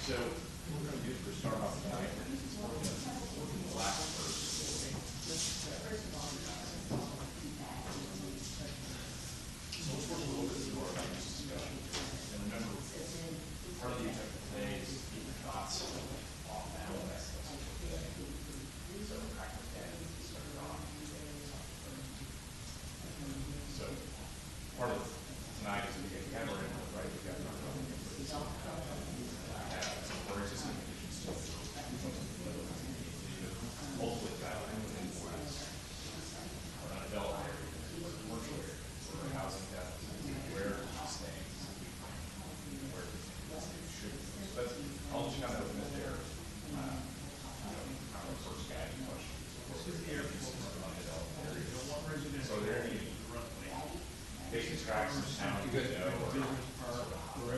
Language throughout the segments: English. So what we're gonna do is we're start off tonight, working the last verse. So let's work a little bit more about this discussion. And remember, part of the objective today is to keep your thoughts off that. So we're back with that, we started off. So part of tonight is we get camera in, right, we got our own. I have some worries, some conditions, so hopefully guideline within four hours. Or not adult area, or commercial area, or housing that, where it's staying, where it should. be. But I'll just kind of open it there. Um, you know, Our first guiding question is, of course, where people from undeveloped areas. So are there any basic tracks in town you know, or sort of I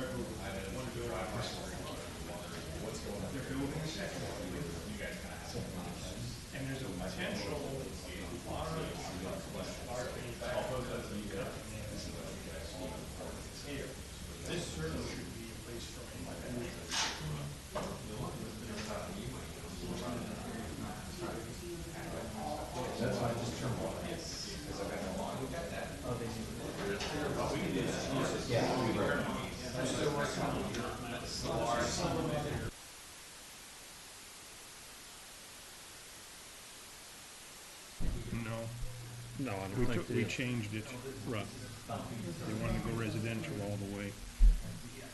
don't want to go out there and worry about it. What's going on? They're building a second one. You guys kind of have to. And there's a potential. Although that's you guys. This is what you guys want to report this here. This certainly should be a place for me. No, No, I we don't think took, we they, changed it, right. They wanted to go residential all the way.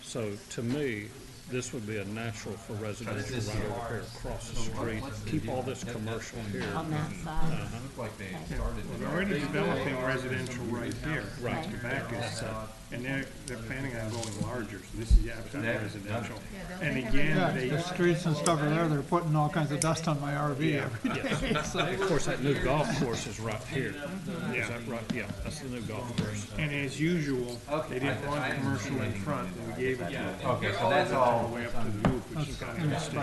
so to me, this would be a natural for residential right over here across the street. Keep all this commercial here. on that side. Like they started. They're already developing residential right here. Right. The back is, uh, and they're, they're planning on going larger, so this is absolutely That- residential. And Yeah, again, they, the streets and stuff in there, they're putting all kinds of dust on my RV every day. Yes. Of course, that new golf course is right here. Is yeah. that right? Yeah, that's the new golf course. And as usual, they didn't want commercial in front, and we gave it to them Okay, so that's all the all. way up to the roof, which is kind of a mistake.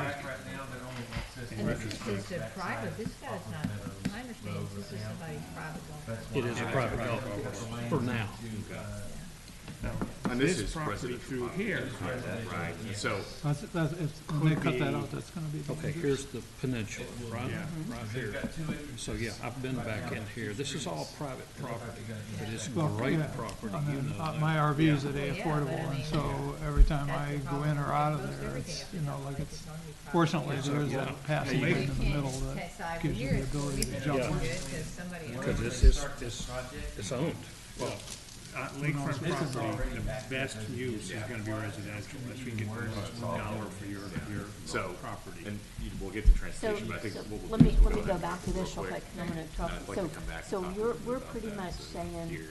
And this is just a private, this guy's not, I understand this is somebody's private golf. It is a private golf course for now. Now, And this This is property through residential here, Right, so, That's, that's, it's, when they cut that out, that's gonna be. Okay, here's the peninsula, right, Yeah. right here. So, yeah, I've been back in here. This is all private property, but it's Well, great yeah. property, I you mean, know uh, that. my RV's at a Yeah, but I affordable, and mean, so every time I that's the go in or out problem. Most of there, everything it's, up you here know, looks like like it's, it's only private. fortunately, Yeah, there is so, that yeah. passing Yeah, you lane in the middle that gives you the ability to jump. Yeah. Because this is, it's, it's owned. well, uh, lakefront property, the best use is gonna be residential, unless we get the most dollar for your, your so, property. and you- we'll get to So, transportation, but I think so what we'll let do me, is we'll let me go ahead back to this real quick, quick, and I'm gonna and talk, I'd like so, to come back and so talk a you're, little we're about pretty that, much so saying here,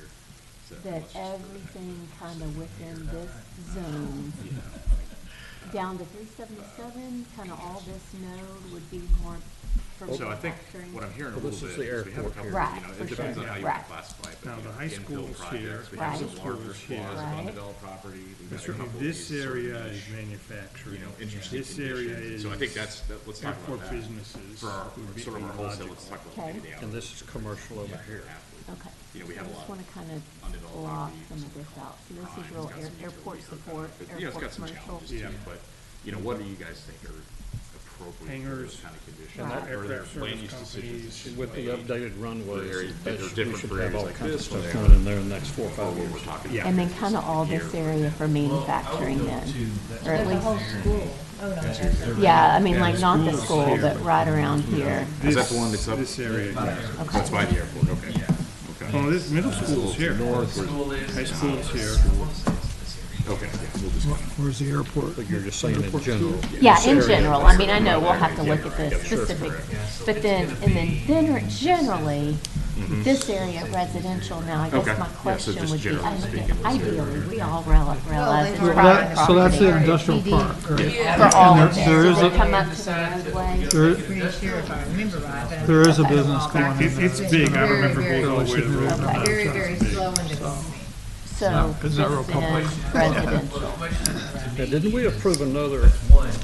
so that let's just- everything kinda within this zone, down to three seventy-seven, kinda all this node would be more for So I think manufacturing. what I'm hearing a Well, little this bit is is the we have a airport couple, you here. Right, know, for it depends sure. on how you Right. classify, but. Now, the you know, high infill school's here. projects, We have some Right. larger School's here. squads of Right. undeveloped property. We've got a Sort of couple of This these sort of area is niche, manufacturing. You know, interesting This area conditions, is. so I think that's, that, let's talk Airport about that. businesses. For our, would be sort of our wholesale, let's logical. talk about maybe the Okay. And this is commercial over here. Okay. You know, we have a I lot just of wanna kinda undeveloped block property, some of this out, so this is real air- airport support, But, you know, it's airport got some commercial. challenges too, Yeah. but, you know, what do you guys think are appropriate for Hangars, those kind of and conditions? Or that- are there Aircraft service land use decisions? companies. With the updated runways, Area- that they're should- we different should for have areas all like kinds of this, where stuff they coming in there in the next four or Or five what we're years. talking Yeah. about? And then kinda all this area for manufacturing then, or at The whole least, school, oh, no, that's. yeah, I mean, like, not the school's school, here, but but- right around here. Is that the one that's up? This area, yeah. That's by the airport, okay. Okay, Oh, this, middle school's here. North, where's- High school's here. okay, yeah, we'll just, Where's the airport? But you're just saying in general. Yeah, in general, I mean, I know we'll have to look at the specifics, but then, and then, then generally, this area residential, now I Okay. guess Yeah, my so question just would be, generally speaking, ide- what's the ideally, we all rel- realize it's they've private already- So that's the property industrial park, right? for all there- of it, there is so a- we come up to the roadway. There, Pretty sure if I remember right. but I- there is a I don't business know if I going in can- there. It's big, I Very, remember very going all the way to the road. Okay. Very, very slow and developing. so It's this not real is residential. Now, didn't we approve another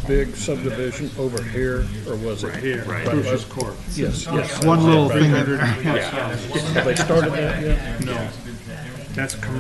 big subdivision over here, or was it? Here, right. Crucius Court. Yes, yes. One little thing in there. Have they started that yet? That's commercial.